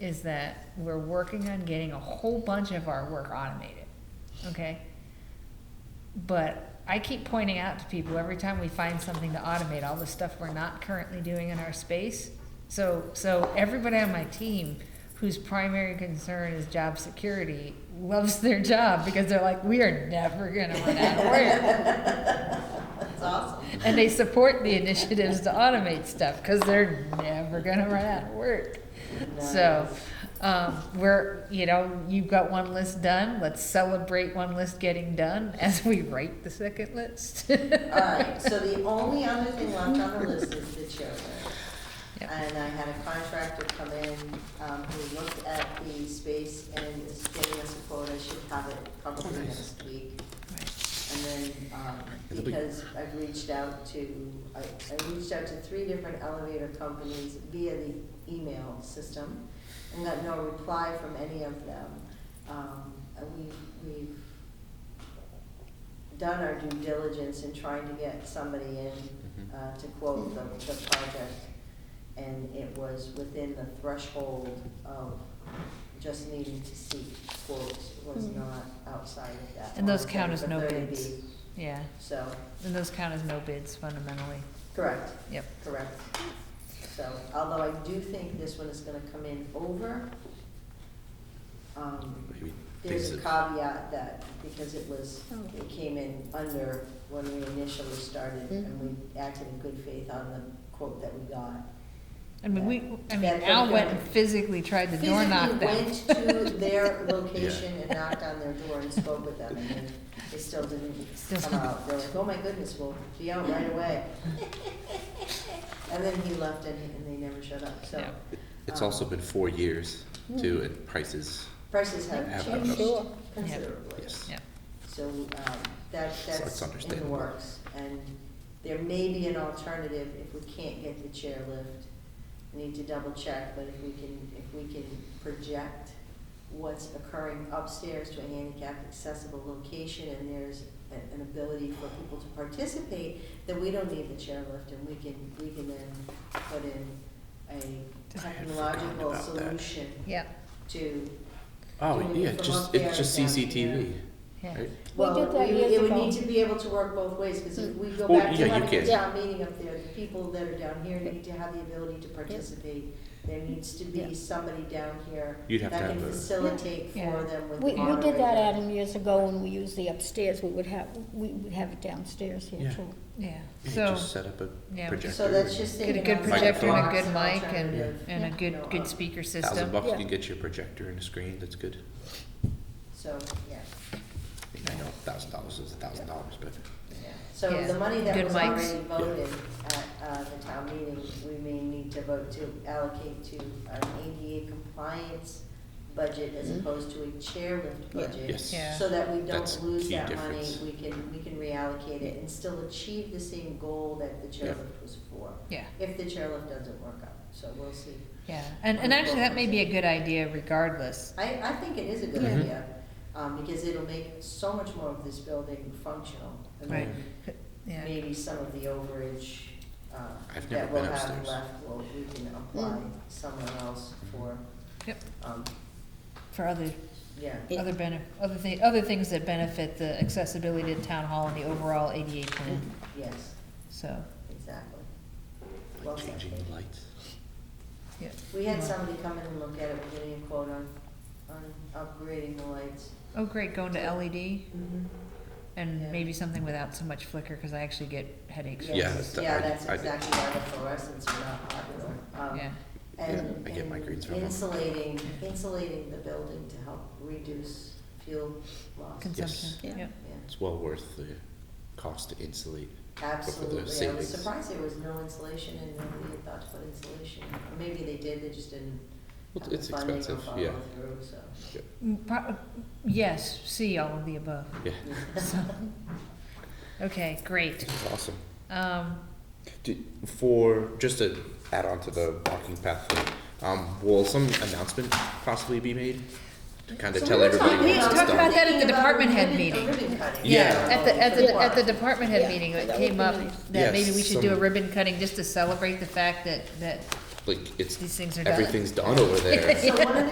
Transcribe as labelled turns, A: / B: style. A: is that we're working on getting a whole bunch of our work automated, okay? But I keep pointing out to people every time we find something to automate, all the stuff we're not currently doing in our space. So, so everybody on my team whose primary concern is job security loves their job because they're like, we are never gonna run out of work.
B: That's awesome.
A: And they support the initiatives to automate stuff because they're never gonna run out of work. So, um, we're, you know, you've got one list done, let's celebrate one list getting done as we write the second list.
B: All right, so the only other thing left on the list is the children.
A: Yep.
B: And I had a contractor come in, um, who looked at the space and is giving us a quote, I should have it probably next week. And then, um,
C: It'll be-
B: because I've reached out to, I, I reached out to three different elevator companies via the email system and got no reply from any of them. Um, and we, we've done our due diligence in trying to get somebody in,
C: Mhm.
B: uh, to quote the, the project. And it was within the threshold of just needing to seek quotes, It was
A: Mm.
B: not outside of that.
A: And those
B: line,
A: count as
B: but
A: no
B: 30
A: bids.
B: B.
A: Yeah,
B: So,
A: and those count as no bids fundamentally,
B: correct,
A: yep.
B: correct. So, although I do think this one is gonna come in over, um,
C: Maybe
B: There's a
C: things
B: caveat that, because it was,
A: Oh.
B: it came in under when we initially started, and we acted in good faith on the quote that we got.
A: I mean, we, I mean,
B: That's
A: Al
B: okay.
A: went and physically tried to door
B: Physically
A: knock them.
B: went to their location and knocked on their door and spoke with them, and then they still didn't
A: Still
B: come out. They're like, oh my goodness, we'll be out right away. And then he left and, and they never showed up, so
A: Yeah.
C: that- It's also been four years
B: Hmm.
C: too, and prices,
B: prices have
C: Have
B: changed
C: gone
B: considerably.
C: yes.
A: Yeah,
B: So um, that, that's
C: it's
B: in the
C: understandable.
B: works. And there may be an alternative if we can't get the chairlift. We Need to double check, but if we can, if we can project what's occurring upstairs to a handicapped accessible location and there's a- an ability for people to participate, then we don't need the chairlift and we can, we can then put in a
A: I had
C: forgotten
B: technological
C: about that.
B: solution
A: yeah,
B: to,
C: Oh,
B: Doing it
C: yeah,
B: from
C: just,
B: up there
C: it's just
B: down
C: CCTV,
B: here.
A: yeah.
C: right?
D: We
B: well,
D: did that
B: we-
D: years
B: it would
D: ago.
B: need to be able to work both ways, because if we go
C: Well,
B: back
C: yeah,
B: to
C: you
B: having a
C: can.
B: town meeting up there, the people that are down here need to have the ability to participate. There needs to
A: Yeah.
B: be somebody down here
C: You'd
B: that
C: have to
B: can
C: have a-
B: facilitate
A: Yeah.
B: for them with the
D: We, we did that,
B: moderator.
D: Adam, years ago, when we used the upstairs, we would have, we would have it downstairs here
C: Yeah.
D: too.
A: Yeah,
C: You
A: so,
C: just set up a
A: yeah.
C: projector.
B: So that's just
A: get a
B: thinking.
A: good
B: outside the
A: projector and a
B: box,
A: good
B: an
A: mic and,
B: alternative,
A: and a
B: you know,
A: good, good
B: of-
A: speaker system.
C: Thousand bucks, you
D: Yeah.
C: can get your projector and a screen, that's good.
B: So, yeah,
C: I mean, I know thousand dollars is a thousand dollars, but
B: yeah. So
A: Yeah.
B: the money
A: Good
B: that was
A: mics.
B: already voted at, uh, the town meeting, we may need to vote to allocate to an ADA compliance budget as
A: Mm-hmm.
D: Mhm.
B: opposed to a chairlift
D: Yeah.
B: budget.
C: yes.
A: Yeah.
B: So that we
C: That's
B: don't lose
C: key
B: that money,
C: difference.
B: we can, we can reallocate it and still achieve the same goal that the
C: Yeah.
B: chairlift was for,
A: Yeah,
B: if the chairlift doesn't work out, so we'll see.
A: yeah, and, and actually, that may be a good idea regardless,
B: I, I think it is a good
C: Mhm.
B: idea, um, because it'll make so much more of this building functional. and
A: right?
B: then
A: Yeah.
B: Maybe some of the overage, uh,
C: I've never
B: that we'll
C: been
B: have
C: upstairs.
B: left, will we can apply
A: Mm.
B: somewhere else for,
A: Yep,
B: um,
A: for other,
B: yeah.
A: other benef, other thi, other things that benefit the accessibility to town hall and the overall ADA plan,
B: Yes,
A: so,
B: exactly. Well
C: like
B: said,
C: changing
B: Dave.
C: the lights.
A: yeah.
B: We had
A: Yeah.
B: somebody come in and look at it, we're getting a quote on, on upgrading the lights.
A: Oh, great, going to LED
B: Yeah.
A: and maybe something without so much flicker, cause I actually get headaches. from
C: Yeah,
B: Yes,
C: that-
B: Yeah,
C: I-
B: that's
C: I-
B: exactly why the fluorescents are not popular. Um,
A: Yeah,
B: And,
C: Yeah, I get my
B: and
C: greens from them.
B: insulating, insulating the building to help reduce fuel loss.
A: consumption,
D: Yeah.
A: yeah.
B: Yeah,
C: It's well worth the cost to insulate.
B: Absolutely, I was
C: savings.
B: surprised there was no insulation and nobody had thought to put insulation, or maybe they did, they just didn't
C: Well,
B: have the
C: it's
B: funding or
C: expensive,
B: follow
C: yeah.
B: through, so.
A: Mm, pro- Yes, see all of the above,
C: Yeah,
A: so, okay, great,
C: it's awesome.
A: um,
C: Do- For, just to add on to the walking path, thing, um, will some announcement possibly be made? To kind of
B: So
C: tell
B: we were
C: everybody
B: talking
A: We
C: what's
A: talked
C: done?
A: about that at the
B: Thinking about
A: department head
B: ribbon- a
A: meeting.
B: ribbon cutting.
C: Yeah.
A: At the, at the, at the
B: Yeah.
A: department head meeting, it
D: Yeah,
A: came
D: that
A: up
D: would be
A: that
C: Yes,
A: maybe we should do a
C: some-
A: ribbon cutting just to celebrate the fact that, that
C: like it's
A: These things are done.
C: everything's done over there.
B: So one of the